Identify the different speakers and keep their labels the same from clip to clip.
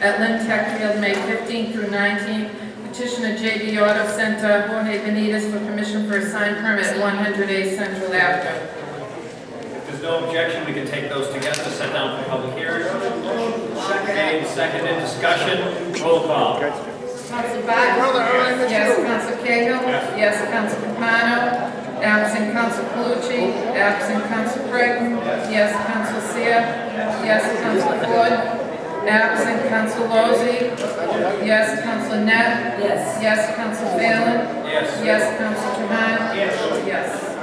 Speaker 1: at Lynn Tech Field, May 15th through 19th. Petition of JB Auto Center, Jorge Benitez, for permission for a sign permit at 108 Central Avenue.
Speaker 2: If there's no objection, we can take those together, set down for public hearing. Made, seconded, discussion, roll call.
Speaker 1: Counsel Barton? Yes, Counsel Cahill? Yes, Counsel Capano? Absent Counsel Calucci? Absent Counsel Creighton? Yes, Counsel Seer? Yes, Counsel Floyd? Absent Counsel Lozey? Yes, Counsel Net?
Speaker 3: Yes.
Speaker 1: Yes, Counsel Phelan?
Speaker 2: Yes.
Speaker 1: Yes, Counsel Trahan? Yes.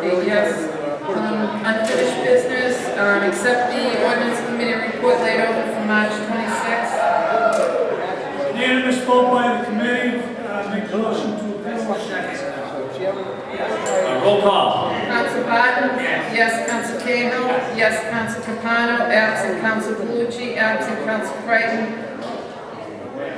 Speaker 1: Eight yes. Um, Unfinished business, um, accept the ordinance committee report laid over for March 26th.
Speaker 4: Unanimous vote by the committee, uh, make a motion to approve.
Speaker 2: Uh, Roll call.
Speaker 1: Counsel Barton? Yes. Council Counsel Cahill? Yes. Council Counsel Capano? Absent Counsel Calucci? Absent Counsel Creighton?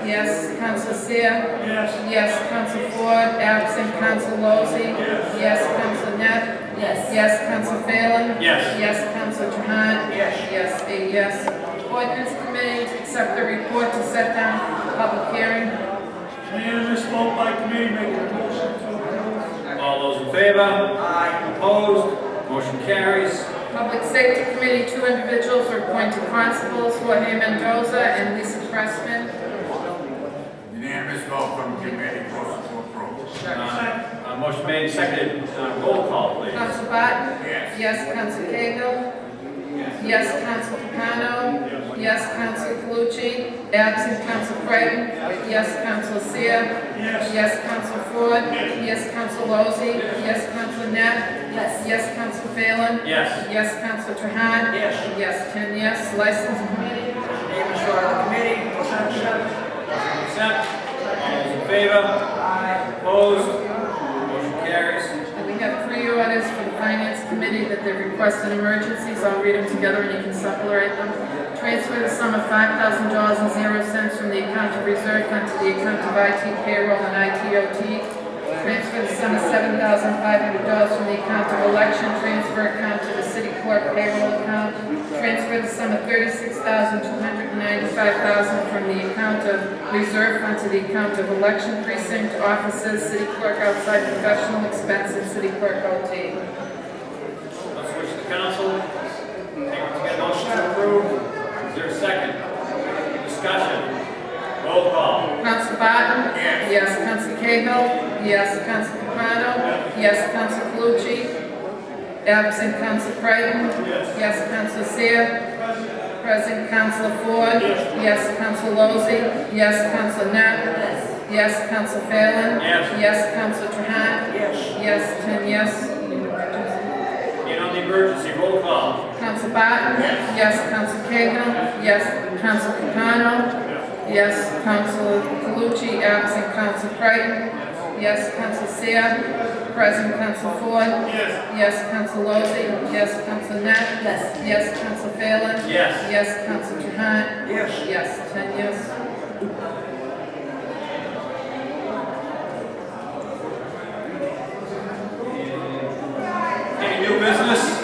Speaker 1: Yes. Counsel Seer?
Speaker 4: Yes,
Speaker 1: Yes. Counsel Ford? Absent Counsel Lozey? Yes. Counsel Net?
Speaker 3: Yes.
Speaker 1: Yes. Counsel Phelan?
Speaker 2: Yes.
Speaker 1: Yes. Counsel Trahan? Yes. Yes, eight yes. Ordinance Committee, accept the report to set down public hearing.
Speaker 4: unanimous vote by committee, make a motion to approve.
Speaker 2: All those in favor? Aye. Opposed? Motion carries.
Speaker 1: Public Safety Committee, two individuals were appointed constables, Jorge Mendoza and Lisa Pressman.
Speaker 5: Unanimous vote from committee, motion to approve.
Speaker 2: Uh, uh, Motion made, seconded, Uh, roll call, please.
Speaker 1: Counsel Barton?
Speaker 5: Yes.
Speaker 1: Yes, Counsel Cahill? Yes, Counsel Capano? Yes, Counsel Calucci? Absent Counsel Creighton? Yes, Counsel Seer?
Speaker 4: Yes,
Speaker 1: Yes, Counsel Ford? Yes, Counsel Lozey? Yes, Counsel Net?
Speaker 3: Yes.
Speaker 1: Yes, Counsel Phelan?
Speaker 2: Yes.
Speaker 1: Yes, Counsel Trahan? Yes. Yes, ten yes. License Committee?
Speaker 2: Accept. All those in favor? Aye. Opposed? Motion carries.
Speaker 1: And we have three orders for the Finance Committee that they requested emergencies. I'll read them together and you can supplement them. Transfer the sum of five thousand dollars and zero cents from the account of reserve fund to the account of IT payroll and ITOT. Transfer the sum of seven thousand five hundred dollars from the account of election transfer account to the city clerk payroll account. Transfer the sum of thirty-six thousand two hundred and ninety-five thousand from the account of reserve fund to the account of election precinct offices, city clerk outside professional expenses, city clerk OT.
Speaker 2: Let's switch to council. Take to get a motion to approve. Is there a second? Discussion. Roll call.
Speaker 1: Counsel Barton? Yes. Yes, Counsel Cahill? Yes, Counsel Capano? Yes, Counsel Calucci? Absent Counsel Creighton? Yes. Yes, Counsel Seer? Present Counsel Ford? Yes. Council Counsel Lozey? Yes, Counsel Net?
Speaker 3: Yes.
Speaker 1: Yes, Counsel Phelan?
Speaker 2: Yes.
Speaker 1: Yes, Counsel Trahan? Yes. Yes, ten yes.
Speaker 2: In on the emergency, roll call.
Speaker 1: Counsel Barton? Yes. Yes, Counsel Cahill? Yes, Counsel Capano? Yes, Counsel Calucci, absent Counsel Creighton? Yes, Counsel Seer? Present Counsel Ford? Yes. Yes, Counsel Lozey? Yes, Counsel Net?
Speaker 3: Yes.
Speaker 1: Yes, Counsel Phelan?
Speaker 2: Yes.
Speaker 1: Yes, Counsel Trahan? Yes. Yes, ten yes.
Speaker 2: Any new business?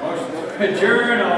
Speaker 2: Motion to adjourn, all